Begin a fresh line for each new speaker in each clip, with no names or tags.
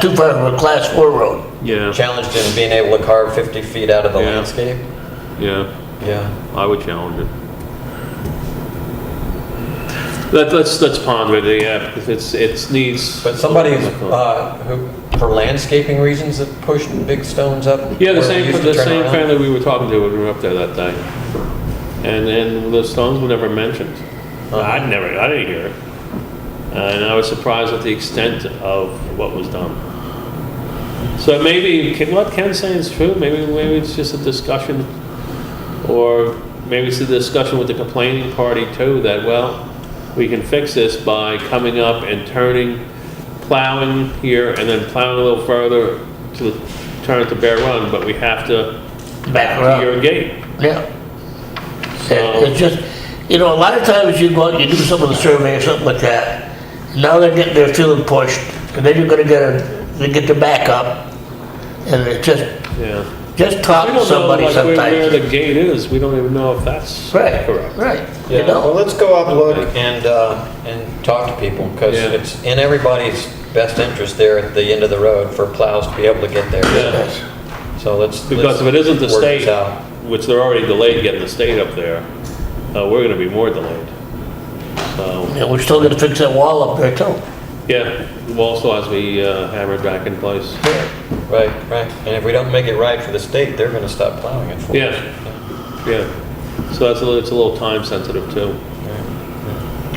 too far of a class four road.
Yeah,
Challenged in being able to carve 50 feet out of the
Yeah.
landscape?
yeah,
Yeah.
I would challenge it. Let, let's, let's ponder it, yeah, because it's, it's needs.
But somebody who's, uh, who, for landscaping reasons, that pushed big stones up?
Yeah, the
where we
same,
used to
the
turn
same
around.
family we were talking to when we were up there that day. And, and the stones were never mentioned. I'd never, I didn't hear it. And I was surprised at the extent of what was done. So maybe, Ken- what Ken's saying is true, maybe, maybe it's just a discussion, or maybe it's a discussion with the complaining party too, that, well, we can fix this by coming up and turning, plowing here, and then plowing a little further to the, turn to Bear Run, but we have to back
Back up.
to your gate.
Yeah. Yeah, It's just, you know, a lot of times you go out, you do some of the survey or something like that. Now they're getting, they're feeling pushed, and then you're gonna get a, they get their back up. And it just,
Yeah.
just talk
We
to
don't know
somebody
like where- Where
sometimes.
the gate is, we don't even know if that's
Right,
correct.
right, you
Yeah, well,
know?
let's go up, look, and, uh, and talk to people, because
Yeah.
it's in everybody's best interest there at the end of the road for plows to be able to get there.
Yeah.
Yes.
So let's.
Because if it
let's
isn't the
work this
state,
out.
which they're already delayed getting the state up there, uh, we're gonna be more delayed. So,
Yeah, we're still gonna fix that wall up there too.
yeah, the wall still has to be uh, hammered back in place.
Right, right. And if we don't make it right for the state, they're gonna stop plowing it for us.
Yeah, yeah. So that's a little, it's a little time sensitive too.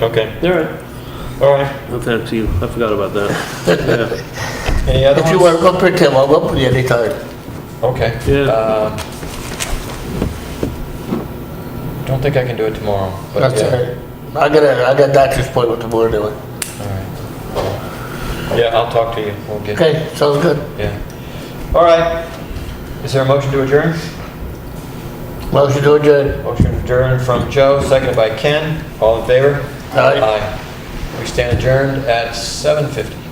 Okay,
All right.
all right.
Well, thanks you, I forgot about that. Yeah.
Any other
If you
ones?
want up there, Tim, I'll up with you anytime.
Okay.
Yeah.
Uh, Don't think I can do it tomorrow. but
That's
yeah.
it. I got a, I got doctor's appointment tomorrow anyway.
All right. Yeah, I'll talk to you. We'll get,
Okay, sounds good.
yeah. All right. Is there a motion to adjourn?
Motion to adjourn.
Motion to adjourn from Joe, seconded by Ken. All in favor?
Aye.
Aye. We stand adjourned at 7:50.